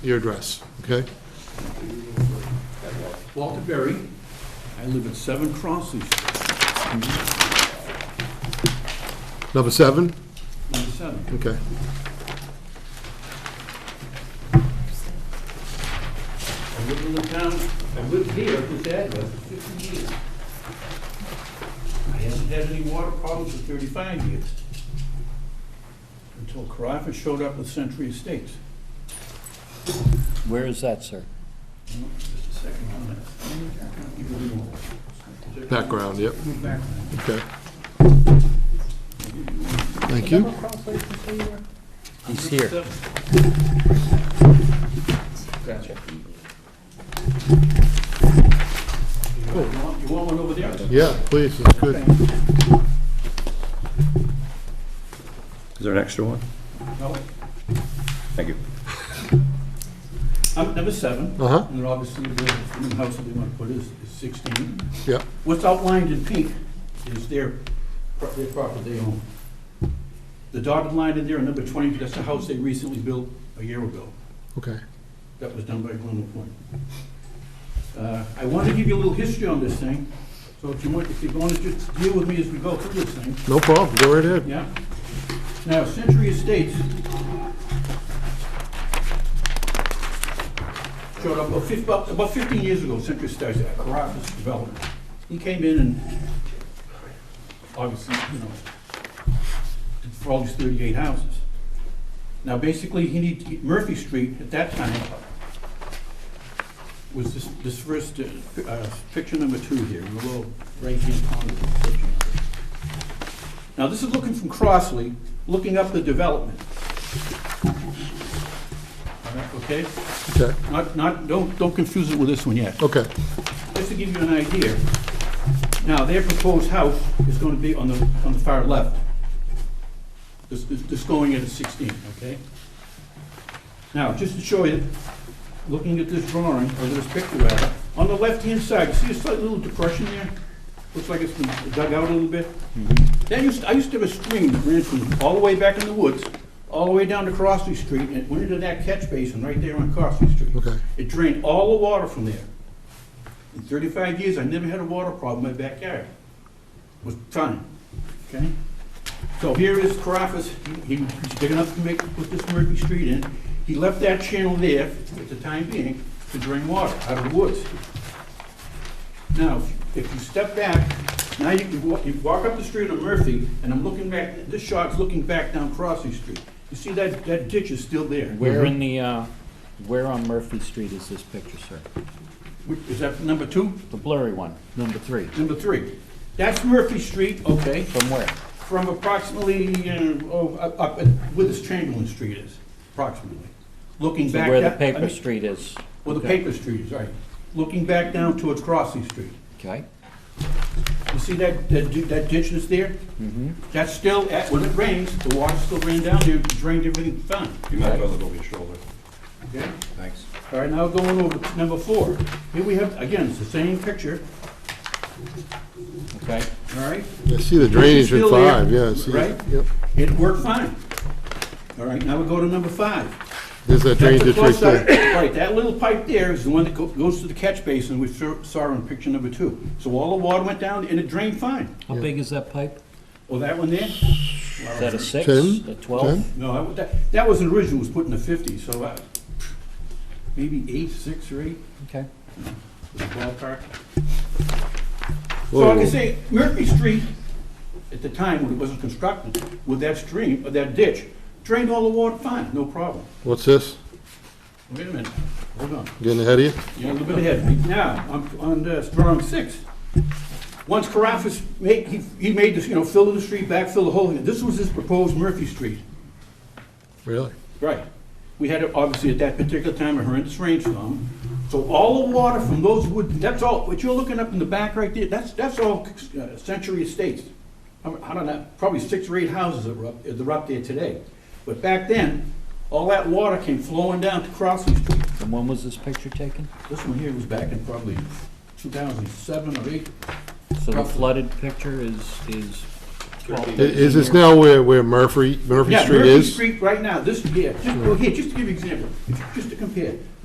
your address, okay? Walter Berry. I live at 7 Crossley Street, Number seven? number 7. Okay. I live in the town, I've lived here at this address for 50 years. I haven't had any water problems for 35 years, until Carafa showed up with Century Estates. Where is that, sir? Just a second on that. Give me one. Background, yep, Background. okay. Thank you. He's here. Gotcha. You want you want one over there? Yeah, please, it's good. Is there an extra one? No. Thank you. Um, Number seven. Uh-huh, And then obviously, the new house that they want to put is is 16. yeah, What's outlined in pink is their, pro- their property they own. The dotted line in there, in number 20, that's the house they recently built a year ago. okay. That was done by Glen LaPointe. Uh, I want to give you a little history on this thing, so if you want, if you want to just deal with me as we go through this thing, No problem, go right ahead. yeah? Now, Century Estates showed up about fif- about about 15 years ago, Century Estates, at Caracas Development. He came in and, obviously, you know, did for all these 38 houses. Now, basically, he need, Murphy Street at that time was this, this first, uh, uh, picture number two here, in the little right-hand corner of the picture. Now, this is looking from Crossley, looking up the development. All right, Okay, Okay, not, not, don't, don't confuse it with this one yet okay, just to give you an idea, now, their proposed house is gonna be on the, on the far left. This, this this going in at sixteen, okay? Now, just to show you, looking at this drawing, or this picture rather, on the left-hand side, you see a slight little depression there? Looks like it's been dug out a little bit. That used, I used to have a stream that ran from all the way back in the woods, all the way down to Crossley Street, and it went into that catch basin right there on Crossley Street. Okay. It drained all the water from there. In 35 years, I never had a water problem in my backyard. It was fine, okay? So here is Caraffas, he he was big enough to make, put this Murphy Street in. He left that channel there, at the time being, to drain water out of the woods. Now, if you step back, now you can walk, you walk up the street of Murphy, and I'm looking back, this shot's looking back down Crossley Street. You see that, that ditch is still there. Where in the, uh, where on Murphy Street is this picture, sir? Wh- Is that number two? The blurry one, number three. Number three. That's Murphy Street, okay, From where? from approximately, uh, oh, up, up at- where this Chamberlain Street is, approximately. Looking So back. where the that- I paper mean, street is? Where the Okay. paper street is, right. Looking back down towards Crossley Street. Okay, You see that, that di- that ditch that's there? Mm-hmm. That's still, at- when it rains, the water still ran down there, drained everything fine, You might as well look over your shoulder. okay? Thanks. All right, now going over to number four. Here we have, again, it's the same picture, okay. all right? I see the drainage at Still there, five, yeah, I see, right? that. yep. It worked fine. All right, now we go to number five. There's that That's the drainage right close there. side- Right, that little pipe there is the one that go- goes to the catch basin we saw saw in picture number two. So all the water went down and it drained fine. How big is that pipe? Oh, that one there? Is that a six, Ten? a twelve? Ten? No, I- that, that was original, was put in the fifties, so I- maybe eight, six or eight, Okay. was the ballpark. So Whoa, like I whoa. say, Murphy Street, at the time when it wasn't constructed, with that stream, or that ditch, drained all the water fine, no problem. What's this? Wait a minute, hold on. Getting ahead of you? You're a little bit ahead of me. Now, on, on uh, drawing six, once Caraffas made, he, he made this, you know, fill in the street, backfill the hole, in it. this was his proposed Murphy Street. Really? Right. We had, obviously, at that particular time, a horrendous rainstorm. So all the water from those wood, that's all, what you're looking up in the back right there, that's, that's all uh, Century Estates. I don't- I don't know, probably six or eight houses that were up, that are up there today. But back then, all that water came flowing down to Crossley Street. And when was this picture taken? This one here was back in probably 2007 or 8. So the Roughly. flooded picture is, is I- Is this now where, where Murphy, Murphy Yeah, Street Murphy is? Street right now, this, here, just, well, here, just to give you an example, just to compare.